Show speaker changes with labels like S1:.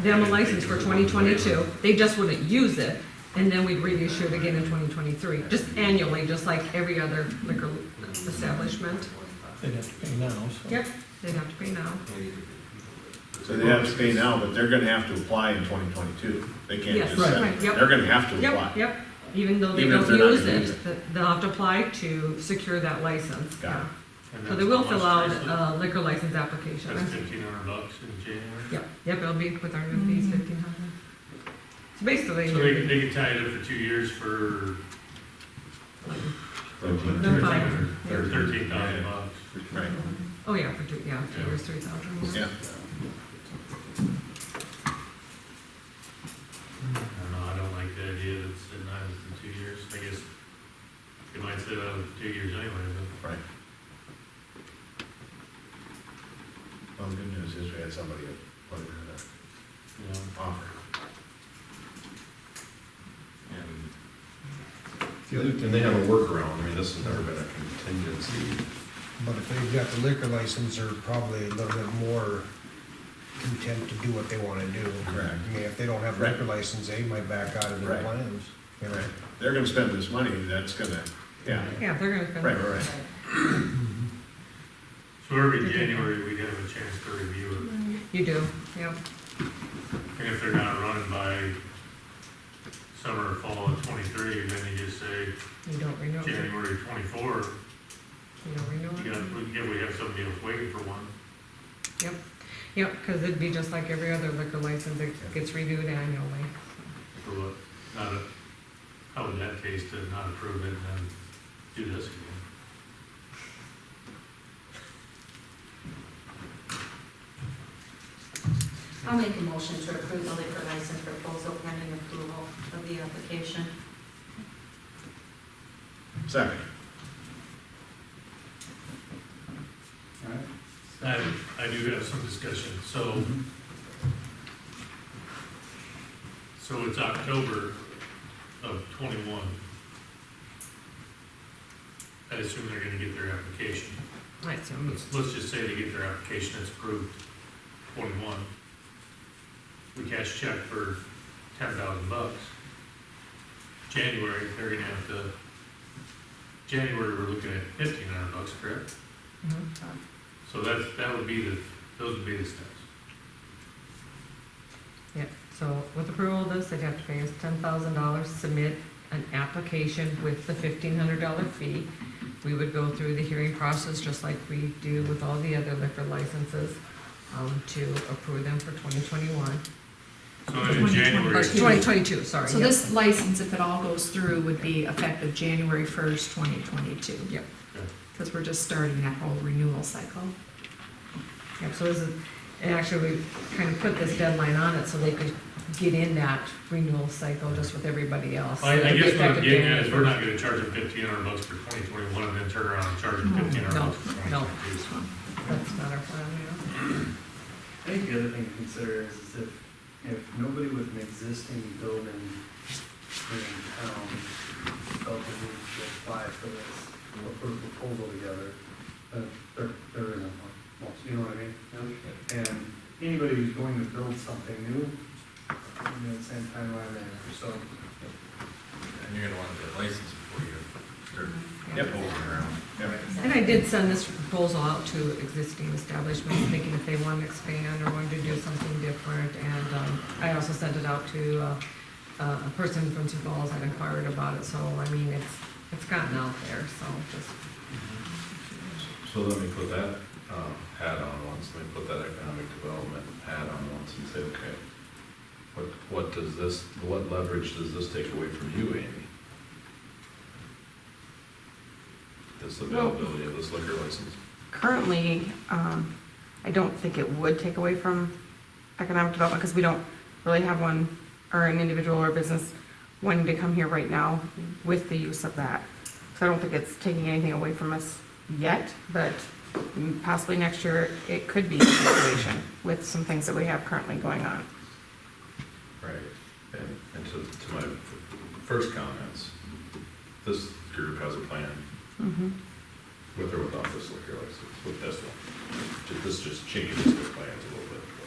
S1: them a license for 2022. They just wouldn't use it, and then we'd reissue it again in 2023, just annually, just like every other liquor establishment.
S2: They'd have to pay now, so.
S1: Yep, they'd have to pay now.
S3: So they have to pay now, but they're gonna have to apply in twenty twenty-two. They can't
S1: Yes,
S3: just send
S1: right,
S3: it.
S1: yep.
S3: They're gonna have to
S1: Yep,
S3: apply.
S1: yep, even though they
S3: Even if
S1: don't
S3: they're not
S1: use
S3: gonna use
S1: it, th- they'll have to apply to secure that license.
S3: Got it.
S1: Yeah. So they will fill out uh, a liquor license application.
S4: That's fifteen hundred bucks in January.
S1: Yep, yep, it'll be with our new fees, fifteen hundred. So
S4: So they,
S1: basically,
S4: they could tie it up for two years for
S1: No
S3: Thirteen.
S1: fine.
S4: thirteen thousand bucks.
S3: Right,
S1: oh yeah, for two, yeah, two years, three thousand.
S3: yeah.
S4: I don't know, I don't like the idea that it's in nine in two years. I guess you might sit out for two years anyway, but.
S3: Well, the good news is we had somebody put in an
S4: yeah.
S3: offer.
S5: The other thing, they have a workaround, I mean, this has never been a contingency.
S6: But if they've got the liquor license, they're probably a little bit more content to do what they wanna do.
S3: Correct.
S6: I mean, if they don't have a liquor license, they might back out of their
S3: Right.
S6: plans, you know?
S3: Right. They're gonna spend this money, that's gonna, yeah,
S1: Yeah, they're gonna spend.
S3: right, right, right.
S4: So every January, we have a chance to review it.
S1: You do, yep,
S4: And if they're not running by summer or fall of twenty-three, then you just say
S1: you don't renew it, you
S4: January twenty-four,
S1: don't
S4: you
S1: renew
S4: got,
S1: it.
S4: we- yeah, we have somebody else waiting for one.
S1: Yep, cause it'd be just like every other liquor license, it gets reviewed annually.
S4: For what, not a, how would that taste to not approve it and then do this again?
S7: I'll make a motion to approve the liquor license proposal pending approval of the application.
S3: Second,
S4: I, I do have some discussion, so. So it's October of twenty-one. I assume they're gonna get their application.
S1: Right, so,
S4: Let's, let's just say they get their application, it's approved, twenty-one. We cash check for ten thousand bucks. January, they're gonna have to, January, we're looking at fifteen hundred bucks, correct?
S1: mhm.
S4: So that's, that would be the, those would be the steps.
S1: Yep, so with approval of this, they'd have to pay us ten thousand dollars, submit an application with the fifteen hundred dollar fee. We would go through the hearing process just like we do with all the other liquor licenses, um, to approve them for twenty twenty-one.
S4: So in January,
S1: Twenty twenty-two, sorry.
S8: So
S1: yep.
S8: this license, if it all goes through, would be effective January first, twenty twenty-two.
S1: Yep.
S4: Okay.
S8: Because we're just starting that whole renewal cycle.
S1: Yep, so this is, and actually, we kind of put this deadline on it so they could get in that renewal cycle just with everybody else.
S4: I, I guess what I'm
S1: Effective
S4: getting at is we're
S1: January
S4: not gonna charge them fifteen hundred bucks for twenty twenty-one and then turn around and charge them
S8: No,
S4: fifteen hundred
S1: no,
S4: bucks for twenty
S1: no.
S4: twenty-two.
S1: first. That's not our plan, yeah.
S9: I think the other thing to consider is, is if, if nobody with an existing building in town felt the need to apply for this, or put a proposal together, uh, there, there isn't one, Well, you know what I mean? And anybody who's going to build something new, you know, same timeline there, so.
S10: And you're gonna wanna get a license before you start
S1: Yeah.
S3: Yep.
S10: pulling around.
S3: yeah.
S1: And I did send this proposal out to existing establishments, thinking if they want to expand or wanted to do something different. And um, I also sent it out to uh, a person from Sioux Falls that inquired about it, so, I mean, it's, it's gotten out there, so just,
S5: So let me put that, um, hat on once, let me put that economic development hat on once and say, okay, what, what does this, what leverage does this take away from you, Amy? This availability of this liquor license.
S11: Currently, um, I don't think it would take away from economic development because we don't really have one or an individual or business wanting to come here right now with the use of that. So I don't think it's taking anything away from us yet, but possibly next year it could be a situation with some things that we have currently going on.
S5: Right. And, and to, to my first comments, this group has a plan
S11: Mm-hmm.
S5: with or without this liquor license, with this one. Ju- This just changes the plans a little bit.